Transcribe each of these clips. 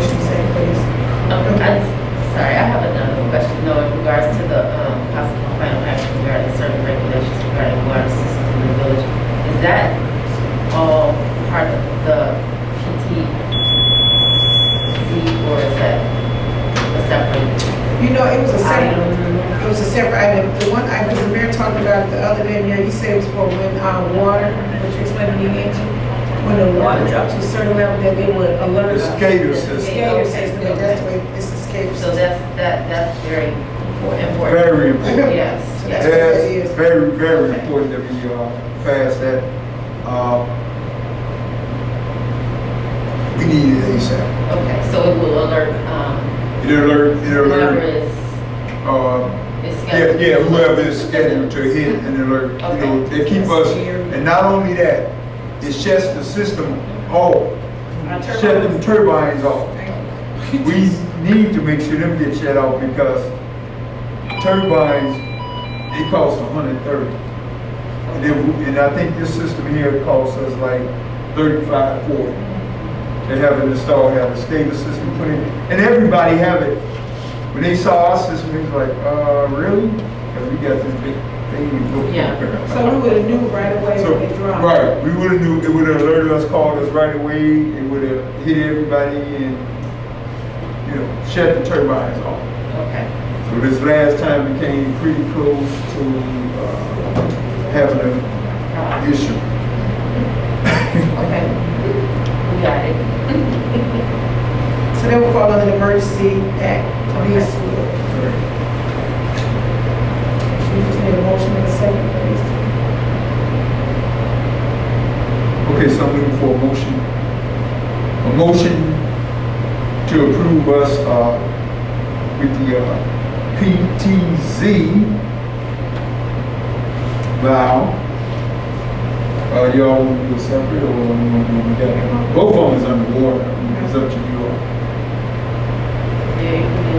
um, uh, when the water drops to a certain level, that they would alert The us. skater system, Skater system, yeah, that's the way, it's the skater So system. that's, that, that's very important. very important. Yes, So that's yes. what that That's is. very, very important that we, uh, pass that, uh, we need it ASAP. Okay, so it will alert, um, It alert, it whoever alert, is, uh, is yeah, scheduled. yeah, whoever is scheduled to hit an alert, you know, they keep us, and not only that, it shuts the system off, Our shut turbines. them turbines off. We need to make sure them get shut off because turbines, it costs a hundred thirty. And then, and I think this system here costs us like thirty-five, forty. They have it installed, have a SCADA system put in, and everybody have it. When they saw our system, they was like, uh, really? Cause we got this big thing. we put- Yeah. So we would have knew right away So, when it dropped. right, we would've knew, it would've alerted us, called us right away, it would've hit everybody and, you know, shut the turbines off. Okay, So this last time we came pretty close to, uh, having an got it. issue. okay. We got it. So they would fall under the emergency act, police. would. We just need a motion in a second, please. Okay, so I'm looking for a motion. A motion to approve us, uh, with the, uh, PTZ vow. Uh, y'all want to do it separate or what we want to do them together? Both of them is underwater, I mean, it's up to you all. Yeah, you can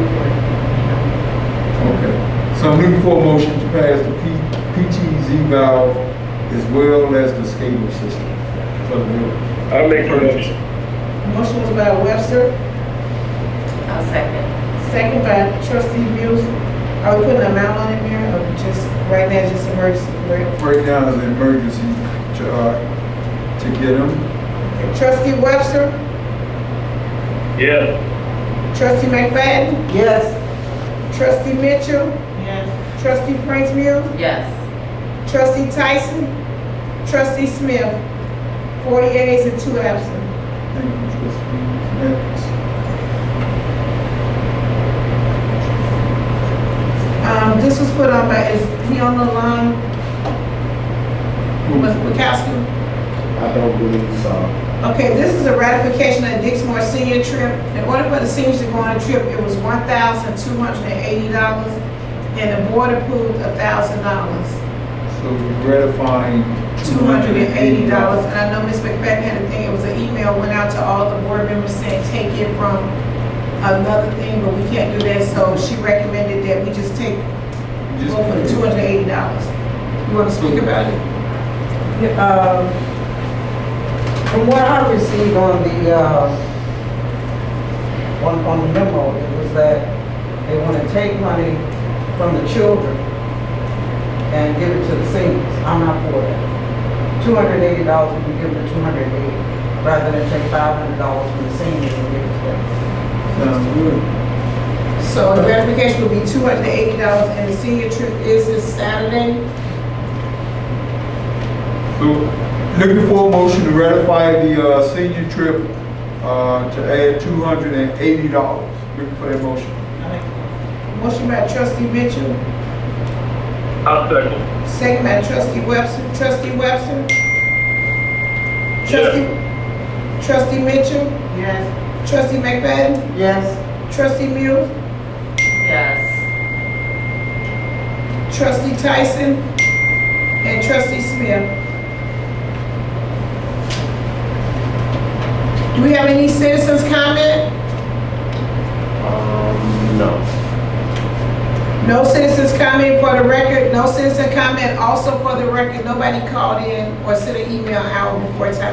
do it. Okay, so I'm looking for a motion to pass the P, PTZ vow as well as the skating system for the village. I make the motion. Motion was by Webster, You know, I'll second. second by trustee Mills. Are we putting an amount on it, Mayor, or just, right now, it's just emergency, correct? Right now is an emergency to, uh, to get them. Trustee Webster, Yes, trustee McFadden, Yes. trustee Mitchell, Yes. trustee Frank Mills, Yes, Trustee Tyson, Trustee Smith, 40 yeas and two absent. Thank you, trustee. Next. Um, this was put on by, is he on the line, Who- Ms. Bukowski? I don't believe so. Okay, this is a ratification of Dixmoor senior trip. In order for the seniors to go on a trip, it was one thousand two hundred and eighty dollars, and the board approved a thousand dollars, So we're ratifying two hundred and eighty dollars. And I know Ms. McFadden had a thing, it was an email went out to all the board members saying, take it from another thing, but we can't do that, so she recommended that we just take Just- Well, for two hundred and eighty dollars. You wanna speak about it? Um, from what I received on the, uh, on, on the memo, it was that they want to take money from the children and give it to the seniors. I'm not for that. Two hundred and eighty dollars would be given to two hundred and eighty, rather than take five hundred dollars from the seniors and give it to them. Sounds good. So the verification will be two hundred and eighty dollars, and the senior trip is this Saturday. So looking for a motion to ratify the, uh, senior trip, uh, to add two hundred and eighty dollars. Looking for that motion. Motion by trustee Mitchell, I'll second. second by trustee Webster, trustee Webster. Trustee, trustee Mitchell. Yes. Trustee McFadden, Yes. trustee Mills, yes, trustee Tyson, and trustee Smith. Do we have any citizens comment? Um, no. No citizens comment for the record, no citizen comment, also for the record, nobody called in or sent an email out before time.